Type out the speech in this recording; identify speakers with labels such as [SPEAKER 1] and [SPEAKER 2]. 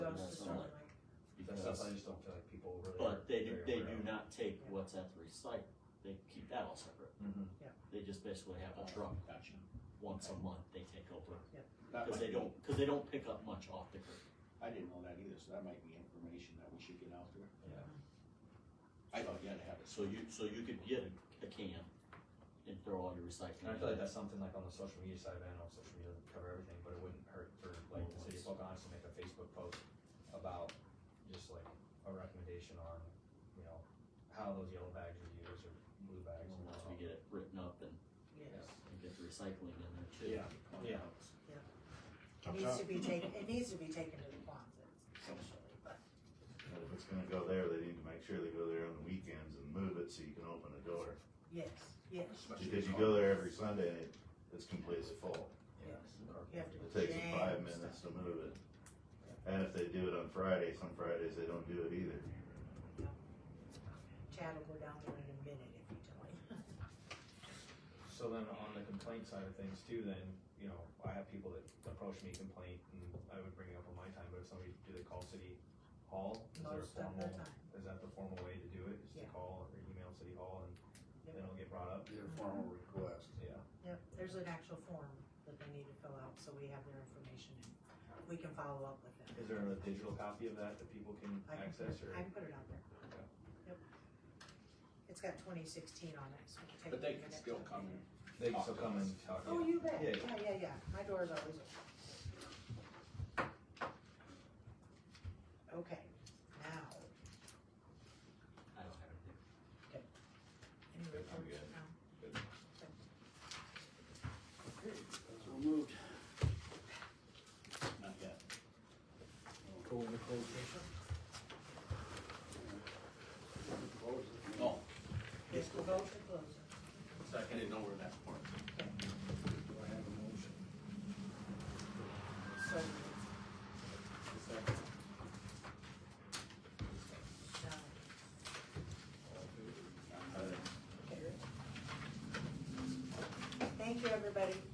[SPEAKER 1] stuff,
[SPEAKER 2] business.
[SPEAKER 1] I just don't feel like people really.
[SPEAKER 2] But they do,
[SPEAKER 1] are
[SPEAKER 2] they
[SPEAKER 1] aware
[SPEAKER 2] do
[SPEAKER 1] of.
[SPEAKER 2] not take what's at the recycle, they keep that all separate.
[SPEAKER 3] Mm-hmm.
[SPEAKER 1] Mhm.
[SPEAKER 2] They just basically
[SPEAKER 1] Uh,
[SPEAKER 2] have a truck
[SPEAKER 4] Gotcha.
[SPEAKER 2] once a month they take over,
[SPEAKER 1] Uh,
[SPEAKER 4] That
[SPEAKER 2] cause
[SPEAKER 4] might
[SPEAKER 2] they
[SPEAKER 4] be-
[SPEAKER 2] don't, cause they don't pick up much off the curb.
[SPEAKER 4] I didn't know that either, so that might be information that we should get out there.
[SPEAKER 1] Yeah.
[SPEAKER 4] I thought you had to have it.
[SPEAKER 2] So you, so you could get a, a can and throw all your
[SPEAKER 1] And I
[SPEAKER 2] recycling.
[SPEAKER 1] feel like that's something like on the social media side, of it, I know social media doesn't cover everything, but it wouldn't hurt for like the city of Pocahontas to make a Facebook post about just like a recommendation on, you know, how those yellow bags are used or blue bags. and
[SPEAKER 2] Once
[SPEAKER 1] all.
[SPEAKER 2] we get it written up and,
[SPEAKER 1] Yes.
[SPEAKER 2] and get the recycling in there too.
[SPEAKER 1] Yeah, yeah.
[SPEAKER 3] It needs to be taken, it needs to be taken to the closets, essentially, but
[SPEAKER 5] But if it's gonna go there, they need to make sure they go there on the weekends and move it so you can open the door.
[SPEAKER 3] yes, yes,
[SPEAKER 5] Because you go there every Sunday and it- it's completely full.
[SPEAKER 3] yes.
[SPEAKER 1] Or-
[SPEAKER 3] You have to
[SPEAKER 5] It takes them five
[SPEAKER 3] jam
[SPEAKER 5] minutes
[SPEAKER 3] stuff.
[SPEAKER 5] to move it. And if they do it on Friday, some Fridays they don't do it either.
[SPEAKER 3] Chad will go down there in a minute if you tell him.
[SPEAKER 1] So then on the complaint side of things too, then, you know, I have people that approach me complaint and I would bring it up on my time, but if somebody, do they call city hall? Is there a
[SPEAKER 3] Most of the
[SPEAKER 1] formal-
[SPEAKER 3] time.
[SPEAKER 1] Is that the formal way to do it, is to
[SPEAKER 3] Yeah.
[SPEAKER 1] call or email city hall and
[SPEAKER 3] Yep.
[SPEAKER 1] then it'll get brought up?
[SPEAKER 6] Your formal request.
[SPEAKER 1] Yeah.
[SPEAKER 3] Yep, there's an actual form that they need to fill out, so we have their information and we can follow up with them.
[SPEAKER 1] Is there a digital copy of that that people can
[SPEAKER 3] I can put
[SPEAKER 1] access
[SPEAKER 3] it-
[SPEAKER 1] or?
[SPEAKER 3] I can put it out there.
[SPEAKER 1] Okay.
[SPEAKER 3] Yep. It's got twenty sixteen on it, so it'll take.
[SPEAKER 4] But
[SPEAKER 3] me a
[SPEAKER 4] they can
[SPEAKER 3] minute
[SPEAKER 4] still
[SPEAKER 3] to-
[SPEAKER 4] come in.
[SPEAKER 1] They can still come and talk.
[SPEAKER 3] Oh, you bet,
[SPEAKER 1] Yeah.
[SPEAKER 3] yeah, yeah, yeah, my door is always open. Okay, now,
[SPEAKER 2] I don't have anything.
[SPEAKER 3] any
[SPEAKER 5] Good, I'm
[SPEAKER 3] reports
[SPEAKER 5] good.
[SPEAKER 3] now?
[SPEAKER 4] So moved. Not yet.
[SPEAKER 6] Go into closed session?
[SPEAKER 4] No,
[SPEAKER 3] Yes, we'll go to close.
[SPEAKER 4] Oh, I didn't know where that part.
[SPEAKER 6] Do I have a motion?
[SPEAKER 3] So. Now,
[SPEAKER 5] I think
[SPEAKER 3] Thank you, everybody.